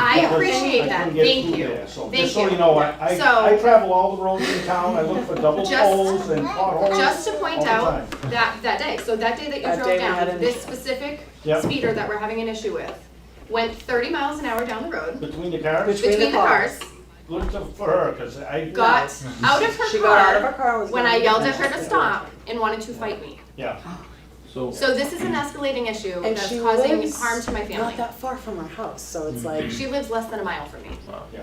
I because appreciate I that, couldn't get thank food you. there. So, Thank just so you. you know, I, I, So- I travel all the roads in town, I look for double Just- poles and potholes all the time. Just to point out, that, that day, so that day that you That day drove we had down, an this issue. specific Yep. speeder that we're having an issue with, went thirty miles an hour down the road, Between the cars, Which- Between the between the cars, looked up for her, cause I, got out of She her got out of her car car and was when I going yelled at get her to back. stop and wanted to fight me. yeah, So, So this is an escalating issue And that's she causing lives harm to my Not family. that far from our house, so it's like, She lives less than a mile from me.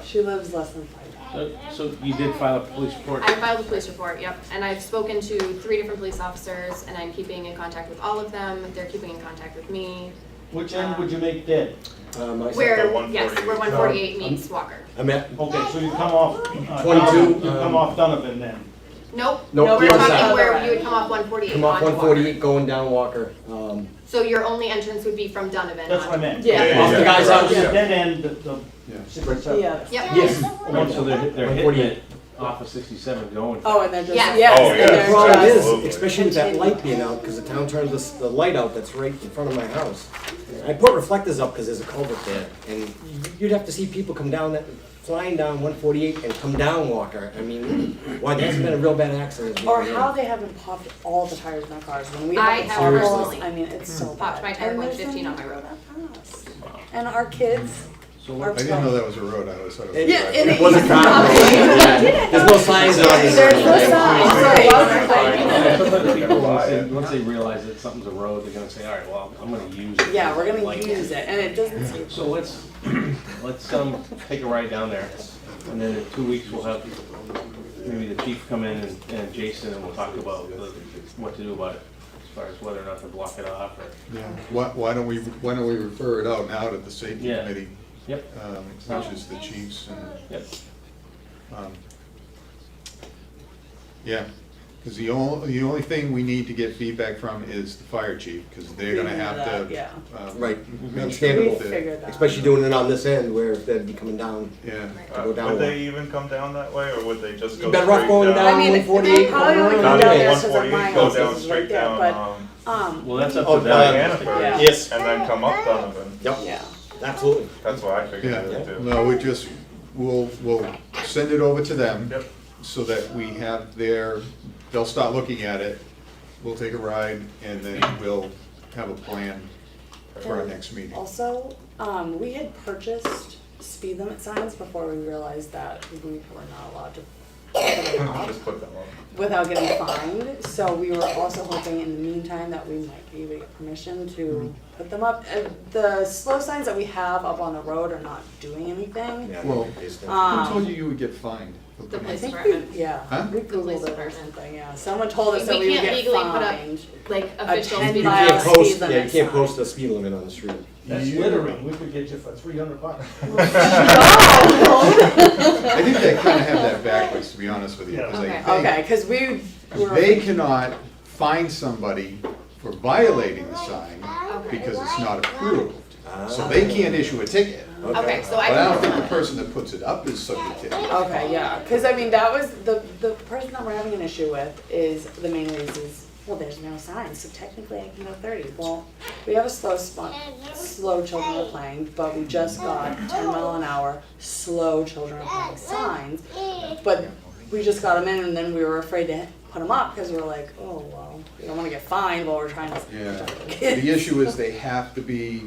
she lives less than five. so- so you did file a police report? I filed a police report, yep, and I've spoken to three different police officers, and I'm keeping in contact with all of them, they're keeping in contact with me. which end would you make dead? Um, I said Where, that one. yes, where one forty-eight meets Walker. I'm at, Okay, so you come off, uh, 22, Donovan- you come um, off Donovan then, Nope, Nope, we're the other talking side. where you would come off one forty-eight come off onto one Walker. forty-eight going down Walker, um, So your only entrance would be from Donovan that's what I on. meant. Yeah. off the guy's So house. the Yeah. dead end, the, the Yeah. six or seven. Yeah. Yep, Yes. Right, So they're, they're hitting it 148. off of sixty-seven going. Oh, and they're just, Yeah. yes, Oh, and yeah. The they're problem just- is, Absolutely. especially with that light being out, because the town turns this, the light out that's right in front of my house. I put reflectors up because there's a culvert there, and you'd have to see people come down that, flying down one forty-eight and come down Walker. I mean, why, that's been a real bad accident. Or how they haven't popped all the tires in our cars when we I have have potholes. personally I mean, it's so bad. Popped my tire And going there's 15 on my nothing road. about us. And our kids So are. what, I didn't know that was a road, I always thought it was. a Yeah, driveway. and It wasn't found. Yeah, There's no signs on it. There's no signs, right. people, once they, once they realize that something's a road, they're gonna say, all right, well, I'm gonna use it. Yeah, we're gonna Like use it, and it doesn't seem. So let's, let's, um, take a ride down there, and then in two weeks, we'll have maybe the chief come in and, and Jason, and we'll talk about the- what to do about it, as far as whether or not to block it off, or, Yeah. Why, why don't we, why don't we refer it out now to the safety Yeah. committee, yep, um, which is the chiefs and, yep. um, yeah. Cause the only, the only thing we need to get feedback from is the fire chief, cause they're gonna Figure have that, to. yeah. um, Right, make sure We Understandable. that- figured that. especially doing it on this end where they'd be coming down. Yeah. to go down Would one. Uh, they even come down that way, or would they just go straight down? Better off going I down mean, one they forty-eight. probably only come down Not down there one so that my forty-eight, go house down is right straight there, down, but, um, um, Well, that's up Oh, to them. uh, Hannaford, Yeah. and Yes, then come up Donovan, yep, yeah. absolutely. that's what I figured it Yeah, would do. no, we just, we'll, we'll send it over to them. Yep. So that we have their, they'll start looking at it, we'll take a ride, and then we'll have a plan for our next meeting. Also, um, we had purchased speed limit signs before we realized that we were not allowed to put them up Just put them on. without getting fined. So we were also hoping in the meantime that we might be able to get permission to put them up. Uh, The slow signs that we have up on the road are not doing anything. Yeah, Well, it's- Who told Um, you you would get fined? for The putting place- I it? think we, Department. Huh? yeah, we The police Googled it or department. something, yeah. Someone told us We that we would can't get legally put up fined. Like A official ten speed You mile limit. can't speed post, yeah, you limit can't sign. post the speed limit on the street. That's Yeah. littering, we could get you for three hundred bucks. I think they kind of have that backwards, to be honest with you. 'cause they Yeah. Okay, cause we think were. They cannot fine somebody for violating the sign because it's not approved. Ah. So they can't issue a ticket. Okay, so I But I can don't think the person that puts it up is subject to it. Okay, yeah, because I mean, that was, the, the person that we're having an issue with is, the main reason is, well, there's no signs, so technically I can go thirty. Well, we have a slow spot, slow children are playing, but we just got ten mile an hour, slow children are playing signs. But we just got them in and then we were afraid to put them up because we were like, oh, well, we don't want to get fined while we're trying Yeah. to. The issue is they have to be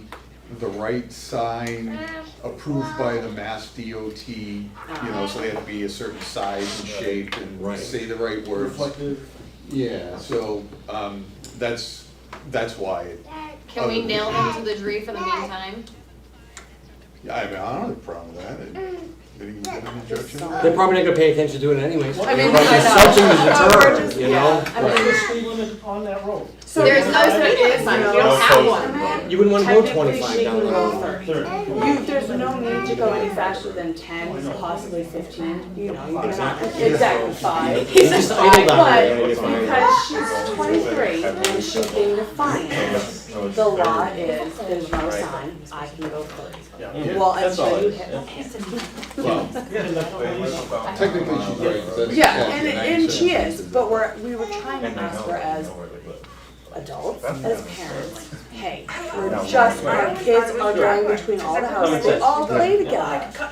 the right sign approved by the Mass DOT, you know, so they have to be a certain size and shape and Right. say the right words. Reflective, Yeah, so, um, that's, that's why, Can we nail them to the tree for the meantime? Yeah, I mean, I don't have a problem with that. Did he get an injunction? They're probably not gonna pay attention to it anyways. I mean, But I it's know. Something to But we're deter, just- you yeah, know? I What's mean, the speed limit on that road? So There's because no there speed limit is sign, no you don't have no one. You wouldn't wanna go Technically, twenty-five she down can the go road. Thirty. You, there's no need to go any faster than ten, possibly fifteen, you know, you're not, exactly five. It's just all down there, But you're gonna get fined. because she's twenty-three and she came to finance, the law is, there's no sign, I can go thirty. Yeah. Well, That's all until it you is, hit. yeah. Well, technically she's right. but that's Yeah, statute and, and she is, but we're, we were trying to ask her as adults, as parents, okay, we're just, our kids are driving between all the houses, they all play together.